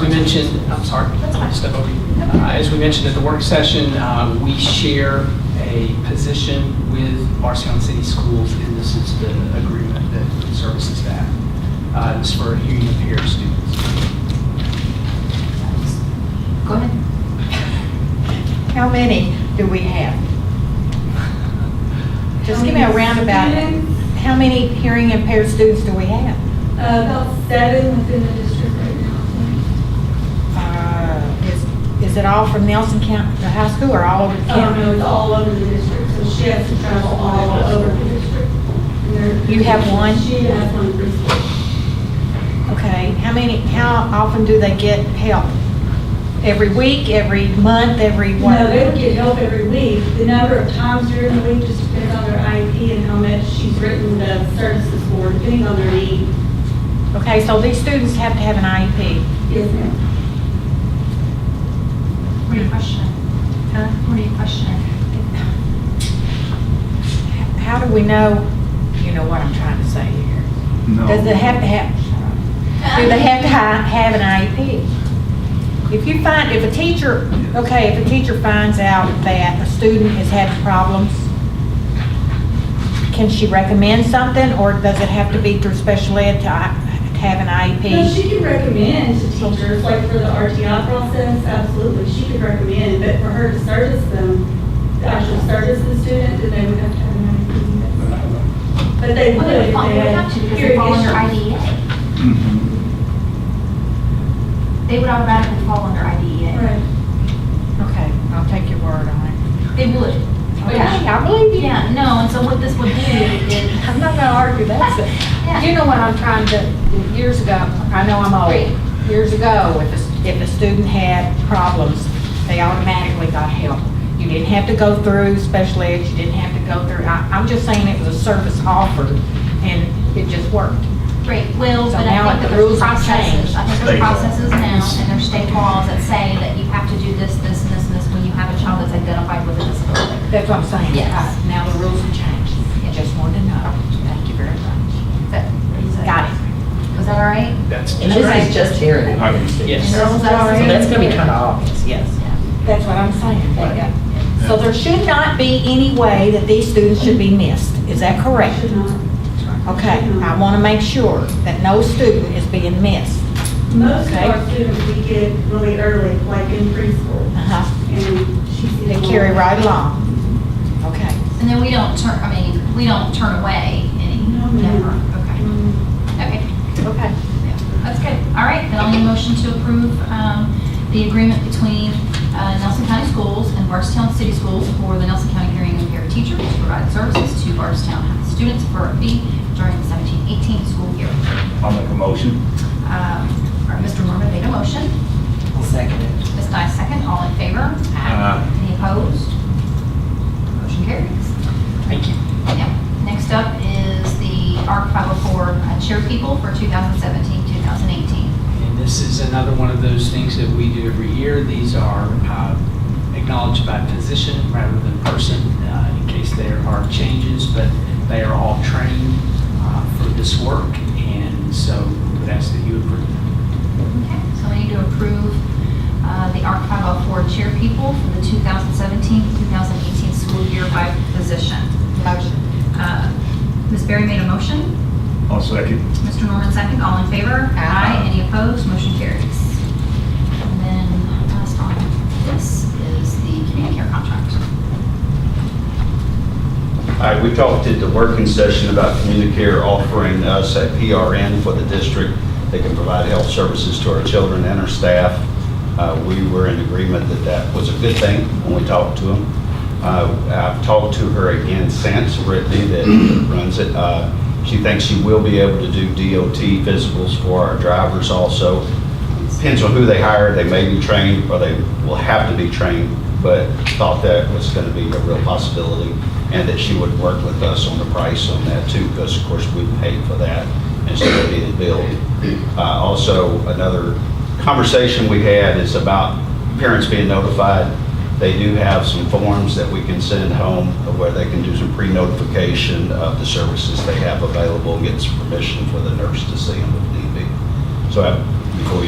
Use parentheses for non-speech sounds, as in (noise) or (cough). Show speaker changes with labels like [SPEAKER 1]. [SPEAKER 1] we mentioned, I'm sorry,
[SPEAKER 2] That's fine.
[SPEAKER 1] step over you. Uh, As we mentioned at the work session, uh, we share a position with Marcion City Schools, and this is the agreement that services that. Uh, It's for union pair students.
[SPEAKER 2] Go ahead.
[SPEAKER 3] How many do we have? Just give me a roundabout, how many hearing impaired students do we have?
[SPEAKER 4] Uh, About seven within the district right now.
[SPEAKER 3] Uh, is- Is it all from Nelson County, the high school, or all over the
[SPEAKER 4] Oh, no,
[SPEAKER 3] county?
[SPEAKER 4] it's all over the district, so she has to travel all over the district. And there-
[SPEAKER 3] You have one?
[SPEAKER 4] She has one preschool.
[SPEAKER 3] Okay, how many, how often do they get help? Every week, every month, every what?
[SPEAKER 4] No, they don't get help every week. The number of times during the week just depends on their IEP and how much she's written the services for, depending on their need.
[SPEAKER 3] Okay, so these students have to have an E IEP?
[SPEAKER 4] Yes, ma'am.
[SPEAKER 2] What are you questioning?
[SPEAKER 3] Huh?
[SPEAKER 2] What are you questioning?
[SPEAKER 3] How do we know, you know what I'm trying to say here?
[SPEAKER 5] No.
[SPEAKER 3] Does it have to have, do they have to hi- have an IEP? If you find, if a teacher, okay, if a teacher finds out that a student has had problems, can she recommend something, or does it have to be through special ed to I- E to have an
[SPEAKER 4] No, she
[SPEAKER 3] IEP?
[SPEAKER 4] can recommend to teachers, like for the RTI process, absolutely, she could recommend, but for her to service them, the actual service the student, then they would have to have an IEP. That's- But they
[SPEAKER 2] Well,
[SPEAKER 4] would
[SPEAKER 2] they would
[SPEAKER 4] if
[SPEAKER 2] fall-
[SPEAKER 4] they
[SPEAKER 2] they would have
[SPEAKER 4] had
[SPEAKER 2] to, because they
[SPEAKER 4] hearing
[SPEAKER 2] fall under E
[SPEAKER 4] issues.
[SPEAKER 2] IDEA.
[SPEAKER 3] Mm-hmm.
[SPEAKER 5] Mhm.
[SPEAKER 2] They would automatically fall under E IDEA.
[SPEAKER 4] Right.
[SPEAKER 3] Okay, I'll take your word on it.
[SPEAKER 2] They would.
[SPEAKER 3] Okay, I believe you.
[SPEAKER 2] Yeah, no, and so what this
[SPEAKER 3] (laughs)
[SPEAKER 2] will do is,
[SPEAKER 3] I'm not gonna argue that. so-
[SPEAKER 2] Yeah.
[SPEAKER 3] You know what I'm trying to, years ago, I know I'm old, years ago, if a, s- if a student had problems, they automatically got help. You didn't have to go through special ed, you didn't have to go through, I, I'm just saying it was a service offered, and it just worked.
[SPEAKER 2] Right, well,
[SPEAKER 3] So
[SPEAKER 2] but
[SPEAKER 3] now
[SPEAKER 2] I think that
[SPEAKER 3] the
[SPEAKER 2] there's
[SPEAKER 3] rules have
[SPEAKER 2] processes,
[SPEAKER 3] changed.
[SPEAKER 2] I think there's
[SPEAKER 5] State law.
[SPEAKER 2] processes now, and there's state laws that say that you have to do this, this, and this, and this when you have a child that's identified with a disability.
[SPEAKER 3] That's what I'm saying.
[SPEAKER 2] Yes.
[SPEAKER 3] Uh, Now the rules have changed. I just wanted to know. Thank you very much.
[SPEAKER 2] Is that- is that-
[SPEAKER 3] Got it.
[SPEAKER 2] Was that all right?
[SPEAKER 1] That's
[SPEAKER 6] And this is just hearing.
[SPEAKER 5] I can see.
[SPEAKER 1] Yes.
[SPEAKER 2] And rules
[SPEAKER 3] That's all
[SPEAKER 2] as-
[SPEAKER 6] So
[SPEAKER 3] right.
[SPEAKER 6] that's gonna be kind of obvious, yes.
[SPEAKER 3] That's what I'm saying. So there should not be any way that these students should be missed. Is that correct?
[SPEAKER 4] Should not.
[SPEAKER 3] Okay, I want to make sure that no student is being missed.
[SPEAKER 4] Most of
[SPEAKER 3] Okay.
[SPEAKER 4] our students we get really early, like in preschool,
[SPEAKER 3] Uh-huh.
[SPEAKER 4] and she sees.
[SPEAKER 3] They
[SPEAKER 4] them
[SPEAKER 3] carry
[SPEAKER 4] all.
[SPEAKER 3] right along. Okay.
[SPEAKER 2] And then we don't turn, I mean, we don't turn away any,
[SPEAKER 4] No,
[SPEAKER 2] never,
[SPEAKER 4] ma'am.
[SPEAKER 2] okay,
[SPEAKER 4] Um,
[SPEAKER 2] okay.
[SPEAKER 3] Okay.
[SPEAKER 2] Yeah, That's good. All right, then I'll need a motion to approve um, the agreement between uh, Nelson County Schools and Barstown City Schools for the Nelson County Hearing Impaired Teacher to provide services to Barstown students for a fee during the 17-18 school year.
[SPEAKER 5] I'll make a motion.
[SPEAKER 2] Um, All right, Mr. Mormon made a motion.
[SPEAKER 6] I'll second it.
[SPEAKER 2] Ms. Dye second. All in favor?
[SPEAKER 5] Aye.
[SPEAKER 2] Any opposed? Motion carries.
[SPEAKER 1] Thank you.
[SPEAKER 2] Yep. Next up is the ARC 504 uh, Chair People for 2017-2018.
[SPEAKER 1] And this is another one of those things that we do every year. These are uh, acknowledged by position rather than person, uh, in case there are changes, but they are all trained uh, for this work, and so we would ask that you approve.
[SPEAKER 2] Okay, so I need to approve uh, the ARC 504 chair people for the 2017-2018 school year by position.
[SPEAKER 3] Motion.
[SPEAKER 2] Uh, Ms. Berry made a motion.
[SPEAKER 5] I'll second.
[SPEAKER 2] Mr. Norman second. All in favor? Aye. Any opposed? Motion carries. And then last on this is the community care contract.
[SPEAKER 7] All right, we talked at the working session about Communicare offering us a PRN for the district that can provide health services to our children and our staff. Uh, We were in agreement that that was a good thing when we talked to them. Uh, I've talked to her again since, Brittany, that runs it. Uh, She thinks she will be able to do DOT physicals for our drivers also. Depends on who they hire, they may be trained, or they will have to be trained, but thought that was going to be a real possibility, and that she would work with us on the price on that too, because of course, we paid for that, and so it needed billed. Uh, Also, another conversation we had is about parents being notified they do have some forms that we can send home where they can do some pre-notification of the services they have available, get some permission for the nurse to see them if need be. So I- before you